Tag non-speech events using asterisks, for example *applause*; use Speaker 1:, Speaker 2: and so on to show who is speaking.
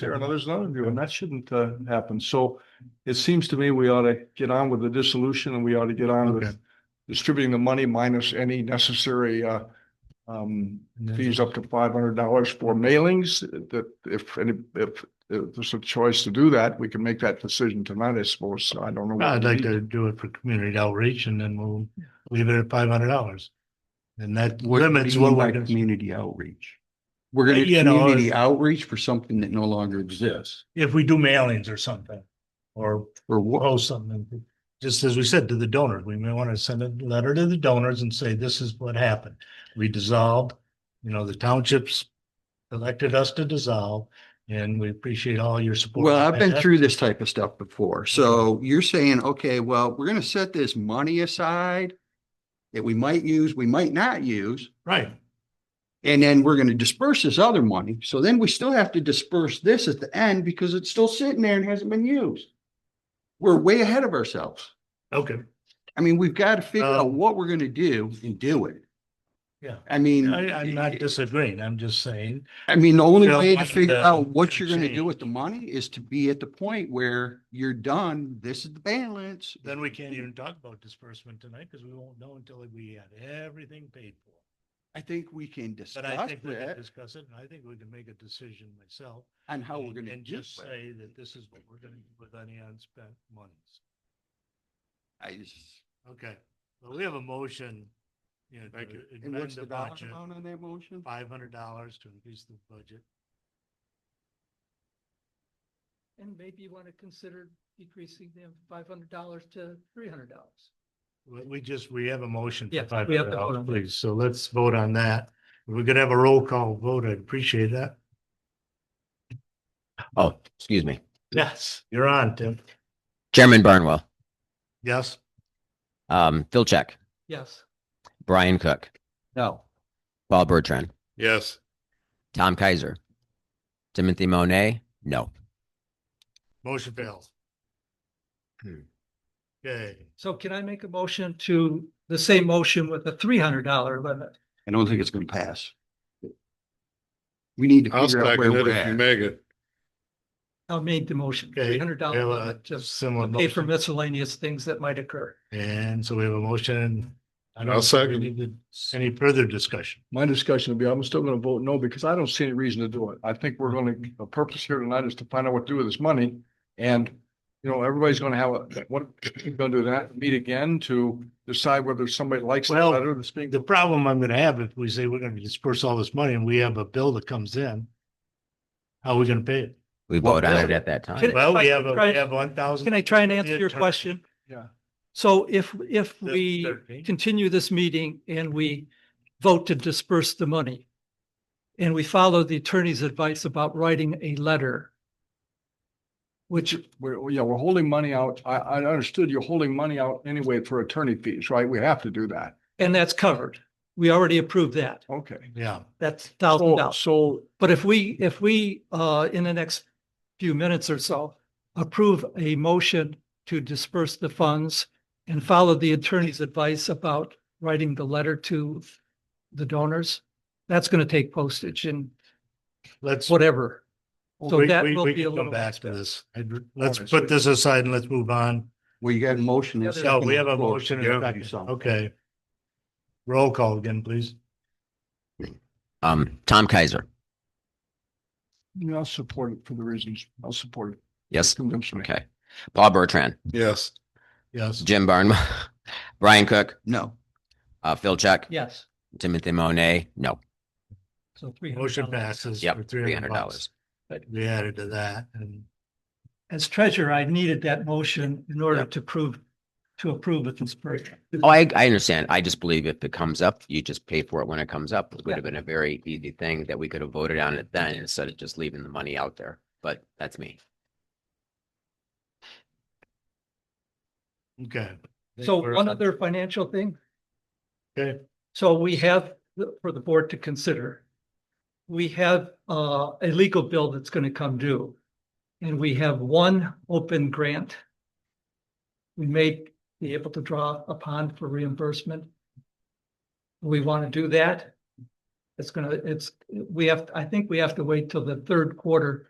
Speaker 1: there and others another view, and that shouldn't uh happen. So it seems to me we ought to get on with the dissolution and we ought to get on
Speaker 2: Okay.
Speaker 1: with distributing the money minus any necessary uh um
Speaker 2: And then-
Speaker 1: fees up to five hundred dollars for mailings that if any if if there's a choice to do that, we can make that decision tonight, I suppose. I don't know. what
Speaker 2: I'd
Speaker 1: we
Speaker 2: like
Speaker 1: need.
Speaker 2: to do it for community outreach and then we'll leave it at five hundred dollars. And that limits
Speaker 3: do you
Speaker 2: what
Speaker 3: mean
Speaker 2: we're,
Speaker 3: by
Speaker 2: gonna-
Speaker 3: Community outreach. We're gonna do
Speaker 2: Uh, You know,
Speaker 3: community
Speaker 2: if-
Speaker 3: outreach for something that no longer exists
Speaker 2: if we do mailings or something, or
Speaker 3: or what?
Speaker 2: post something. Just as we said to the donors, we may want to send a letter to the donors and say, this is what happened. We dissolved, you know, the townships elected us to dissolve and we appreciate all your support.
Speaker 3: Well, I've been through this type of stuff before. So you're saying, okay, well, we're gonna set this money aside that we might use, we might not use,
Speaker 2: Right,
Speaker 3: and then we're gonna disperse this other money. So then we still have to disperse this at the end because it's still sitting there and hasn't been used. We're way ahead of ourselves.
Speaker 2: okay,
Speaker 3: I mean, we've got to figure out
Speaker 2: Um,
Speaker 3: what we're gonna do and do it.
Speaker 2: yeah.
Speaker 3: I mean.
Speaker 2: I, I'm not
Speaker 3: it-
Speaker 2: disagreeing. I'm just saying,
Speaker 3: I mean, the only
Speaker 2: Phil,
Speaker 3: way to
Speaker 2: what
Speaker 3: figure
Speaker 2: the-
Speaker 3: out what you're gonna do
Speaker 2: change?
Speaker 3: with the money is to be at the point where you're done, this is the balance.
Speaker 2: then we can't even talk about disbursement tonight because we won't know until we have everything paid for.
Speaker 3: I think we can discuss
Speaker 2: But I think we can
Speaker 3: that
Speaker 2: discuss it and I think we can make a decision myself.
Speaker 3: on how we're
Speaker 2: and-
Speaker 3: gonna
Speaker 2: And
Speaker 3: do
Speaker 2: just
Speaker 3: it.
Speaker 2: say that this is what we're gonna do with any unspent monies.
Speaker 3: I just.
Speaker 2: Okay, well, we have a motion. you know,
Speaker 3: Thank
Speaker 2: to
Speaker 3: And
Speaker 2: amend
Speaker 3: what's
Speaker 2: the
Speaker 3: the dollar
Speaker 2: budget,
Speaker 3: amount on that motion?
Speaker 2: five hundred dollars to increase the budget.
Speaker 4: And maybe you want to consider decreasing them five hundred dollars to three hundred dollars.
Speaker 2: We, we just, we have a motion for
Speaker 4: Yeah,
Speaker 2: five
Speaker 4: we have
Speaker 2: hundred
Speaker 4: to vote
Speaker 2: dollars,
Speaker 4: on that.
Speaker 2: please. So let's vote on that. If We're gonna have a roll call vote. I'd appreciate that.
Speaker 5: Oh, excuse me.
Speaker 2: Yes, you're on, Tim.
Speaker 5: Chairman Barnwell,
Speaker 2: Yes,
Speaker 5: um, Phil Check,
Speaker 4: Yes,
Speaker 5: Brian Cook,
Speaker 3: No.
Speaker 5: Paul Bertrand,
Speaker 6: Yes,
Speaker 5: Tom Kaiser, Timothy Monet, no.
Speaker 2: motion fails.
Speaker 5: Hmm.
Speaker 2: Okay,
Speaker 4: so can I make a motion to the same motion with a three hundred dollar limit?
Speaker 3: I don't think it's gonna pass. We need to
Speaker 6: I'll
Speaker 3: figure out
Speaker 6: second
Speaker 3: where
Speaker 6: it
Speaker 3: we're
Speaker 6: if you
Speaker 3: at.
Speaker 6: make it.
Speaker 4: I made the motion,
Speaker 2: okay.
Speaker 4: three hundred
Speaker 2: we have
Speaker 4: dollar
Speaker 2: a
Speaker 4: limit, just
Speaker 2: Similar
Speaker 4: pay for
Speaker 2: motion.
Speaker 4: miscellaneous things that might occur.
Speaker 2: And so we have a motion. I don't
Speaker 6: I'll
Speaker 2: think we
Speaker 6: second.
Speaker 2: need to- Any further discussion?
Speaker 1: My discussion will be, I'm still gonna vote no because I don't see any reason to do it. I think we're gonna, the purpose here tonight is to find out what to do with this money. And, you know, everybody's gonna have, a what, we're gonna do that, meet again to decide whether somebody likes it
Speaker 2: Well,
Speaker 1: better than speaking.
Speaker 2: The problem I'm gonna have if we say we're gonna disperse all this money and we have a bill that comes in. How are we gonna pay it?
Speaker 5: We
Speaker 3: Well,
Speaker 5: vote on it
Speaker 3: really?
Speaker 5: at that time.
Speaker 4: Can-
Speaker 2: Well, we
Speaker 4: I-
Speaker 2: have, a
Speaker 4: try-
Speaker 2: we have one thousand.
Speaker 4: Can I try and answer your question?
Speaker 1: Yeah.
Speaker 4: So if, if we continue this meeting and we vote to disperse the money and we follow the attorney's advice about writing a letter, which
Speaker 1: We're, yeah, we're holding money out. I, I understood you're holding money out anyway for attorney fees, right? We have to do that.
Speaker 4: And that's covered. We already approved that.
Speaker 1: Okay.
Speaker 2: Yeah,
Speaker 4: That's thousand
Speaker 1: So,
Speaker 4: dollars.
Speaker 1: so
Speaker 4: But if we, if we, uh, in the next few minutes or so, approve a motion to disperse the funds and follow the attorney's advice about writing the letter to the donors, that's going to take postage and
Speaker 2: let's.
Speaker 4: whatever.
Speaker 2: we-
Speaker 4: So that
Speaker 2: we-
Speaker 4: will
Speaker 2: we
Speaker 4: be
Speaker 2: can come
Speaker 4: a little
Speaker 2: Back to
Speaker 4: bit.
Speaker 2: this. I'd- Let's
Speaker 1: Alright,
Speaker 2: put
Speaker 1: so-
Speaker 2: this aside and let's move on.
Speaker 3: Well, you got a motion. and
Speaker 4: Yeah,
Speaker 2: No,
Speaker 3: second
Speaker 2: we have
Speaker 3: on the
Speaker 2: a
Speaker 3: floor.
Speaker 2: motion. and
Speaker 3: You
Speaker 2: a
Speaker 3: have to do
Speaker 2: second.
Speaker 3: something.
Speaker 2: Okay. Roll call again, please.
Speaker 5: Um, Tom Kaiser,
Speaker 1: yeah, I'll support it for the reasons. I'll support it.
Speaker 5: yes,
Speaker 1: Convince me.
Speaker 5: okay. Paul Bertrand,
Speaker 6: Yes,
Speaker 2: Yes.
Speaker 5: Jim Barnwell, *laughs* Brian Cook,
Speaker 3: No,
Speaker 5: uh, Phil Check,
Speaker 4: Yes.
Speaker 5: Timothy Monet, no.
Speaker 4: So three hundred.
Speaker 2: Motion passes
Speaker 5: Yep,
Speaker 2: for three hundred
Speaker 5: $300.
Speaker 2: dollars. We added to that and
Speaker 4: As treasurer, I needed that motion in order to prove, to approve a disbursement.
Speaker 5: Oh, I, I understand. I just believe if it comes up, you just pay for it when it comes up. It would have been a very easy thing that we could have voted on it then instead of just leaving the money out there. But that's me.
Speaker 2: Okay.
Speaker 4: So
Speaker 2: We're-
Speaker 4: one other financial thing.
Speaker 2: Okay.
Speaker 4: So we have, for the board to consider, we have uh, a legal bill that's going to come due. And we have one open grant. We may be able to draw upon for reimbursement. We want to do that. It's gonna, it's, we have, I think we have to wait till the third quarter